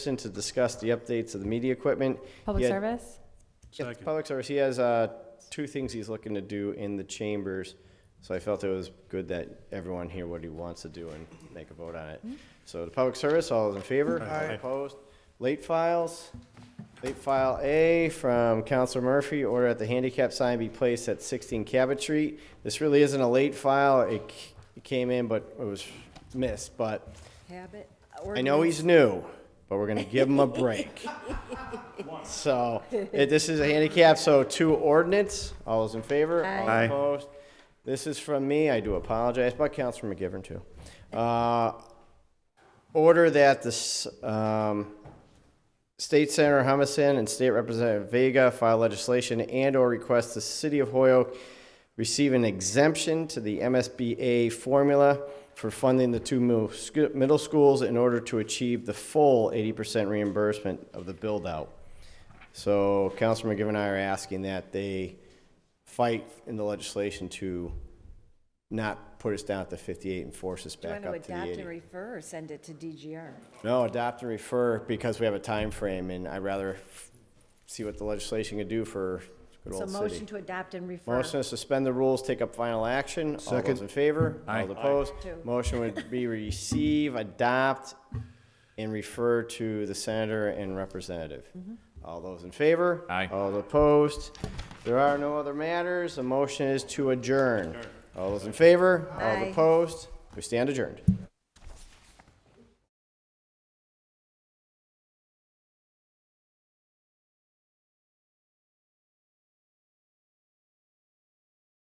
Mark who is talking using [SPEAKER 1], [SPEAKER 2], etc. [SPEAKER 1] session to discuss the updates of the media equipment.
[SPEAKER 2] Public
[SPEAKER 1] Yeah.
[SPEAKER 2] service?
[SPEAKER 1] Yeah,
[SPEAKER 3] Second.
[SPEAKER 1] Public service, he has uh, two things he's looking to do in the chambers, so I felt it was good that everyone hear what he wants to do and make a vote on it. So the public service, all those in favor?
[SPEAKER 3] Aye.
[SPEAKER 1] Opposed? Late files, late file A from Counselor Murphy, order that the handicap sign be placed at 16 Cabot Street. This really isn't a late file, it c- it came in, but it was missed, but
[SPEAKER 4] Habit.
[SPEAKER 1] I know he's new, but we're gonna give him a break. So, eh, this is a handicap, so two ordinance, all those in favor? all
[SPEAKER 3] Aye. Aye.
[SPEAKER 1] Opposed? This is from me, I do apologize, but Councilor McGivern too. Uh, Order that this, um, State Senator Humison and State Representative Vega file legislation and/or request the City of Hoyoke receive an exemption to the MSBA formula for funding the two mil- sc- middle schools in order to achieve the full 80% reimbursement of the build-out. So Councilor McGivern and I are asking that they fight in the legislation to not put us down at the 58 and force us
[SPEAKER 4] Do you
[SPEAKER 1] back
[SPEAKER 4] want to
[SPEAKER 1] up to the 80.
[SPEAKER 4] adopt and refer or send it to DGR?
[SPEAKER 1] No, adopt and refer because we have a time frame, and I'd rather f- see what the legislation can do for good
[SPEAKER 4] So
[SPEAKER 1] old
[SPEAKER 4] motion
[SPEAKER 1] city.
[SPEAKER 4] to adopt and refer.
[SPEAKER 1] Motion to suspend the rules, take up final action. All those in favor?
[SPEAKER 3] Aye.
[SPEAKER 1] All opposed?
[SPEAKER 4] Two.
[SPEAKER 1] Motion would be receive, adopt, and refer to the senator and representative.
[SPEAKER 4] Mm-hmm.
[SPEAKER 1] All those in favor?
[SPEAKER 3] Aye.
[SPEAKER 1] All opposed? There are no other matters. The motion is to adjourn. All those in favor?
[SPEAKER 4] Aye.
[SPEAKER 1] All opposed? We stand adjourned.